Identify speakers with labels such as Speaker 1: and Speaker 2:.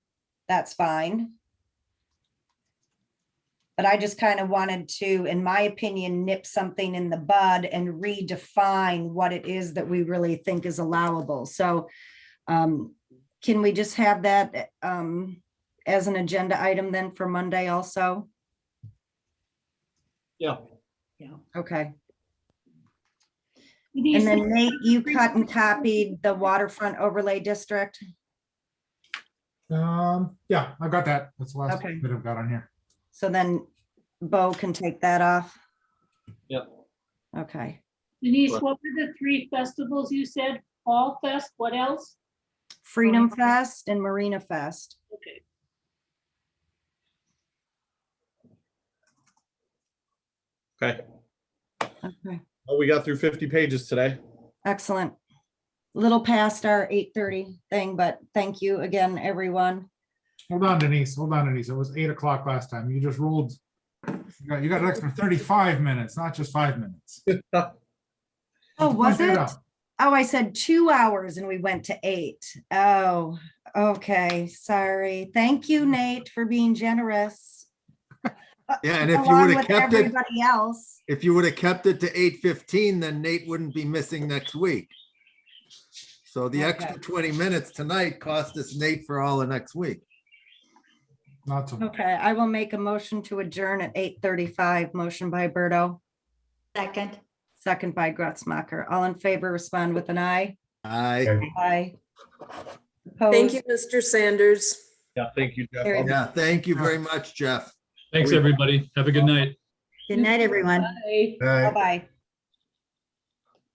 Speaker 1: that's fine. But I just kind of wanted to, in my opinion, nip something in the bud and redefine what it is that we really think is allowable. So um, can we just have that um, as an agenda item then for Monday also?
Speaker 2: Yeah.
Speaker 3: Yeah.
Speaker 1: Okay.
Speaker 3: Do you
Speaker 1: And
Speaker 3: think-
Speaker 1: then Nate, you cut and copied the waterfront overlay district?
Speaker 4: Um, yeah, I've got that. That's the last
Speaker 1: Okay.
Speaker 4: bit I've got on here.
Speaker 1: So then Bo can take that off?
Speaker 2: Yep.
Speaker 1: Okay.
Speaker 3: Denise, what were the three festivals you said? Fall Fest, what else?
Speaker 1: Freedom Fest and Marina Fest.
Speaker 3: Okay.
Speaker 2: Okay.
Speaker 1: Okay,
Speaker 2: Well, Oh, we got through fifty pages today.
Speaker 1: excellent. Little past our eight thirty thing, but thank you again, everyone.
Speaker 4: Hold on Denise, hold on Denise. It was eight o'clock last time. You just rolled. You got, you got an extra thirty-five minutes, not just five minutes.
Speaker 1: Oh, was
Speaker 4: Point
Speaker 1: it?
Speaker 4: that out.
Speaker 1: Oh, I said two hours and we went to eight. Oh, okay, sorry. Thank you, Nate, for being generous.
Speaker 5: Yeah, and if you
Speaker 1: Along
Speaker 5: would have
Speaker 1: with
Speaker 5: kept it,
Speaker 1: everybody else.
Speaker 5: if you would have kept it to eight fifteen, then Nate wouldn't be missing next week. So the extra twenty minutes tonight cost us Nate for all of next week.
Speaker 4: Not to.
Speaker 1: Okay, I will make a motion to adjourn at eight thirty-five. Motion by Berto,
Speaker 6: Second.
Speaker 1: second by Gretzmacher. All in favor, respond with an aye.
Speaker 5: I,
Speaker 1: Aye.
Speaker 7: Thank
Speaker 1: Opposed?
Speaker 7: you, Mr. Sanders.
Speaker 2: Yeah, thank you, Jeff.
Speaker 1: Carried.
Speaker 2: I'll-
Speaker 5: yeah, thank you very much, Jeff.
Speaker 8: Thanks, everybody. Have a good night.
Speaker 6: Good night, everyone.
Speaker 3: Bye.
Speaker 1: Bye-bye.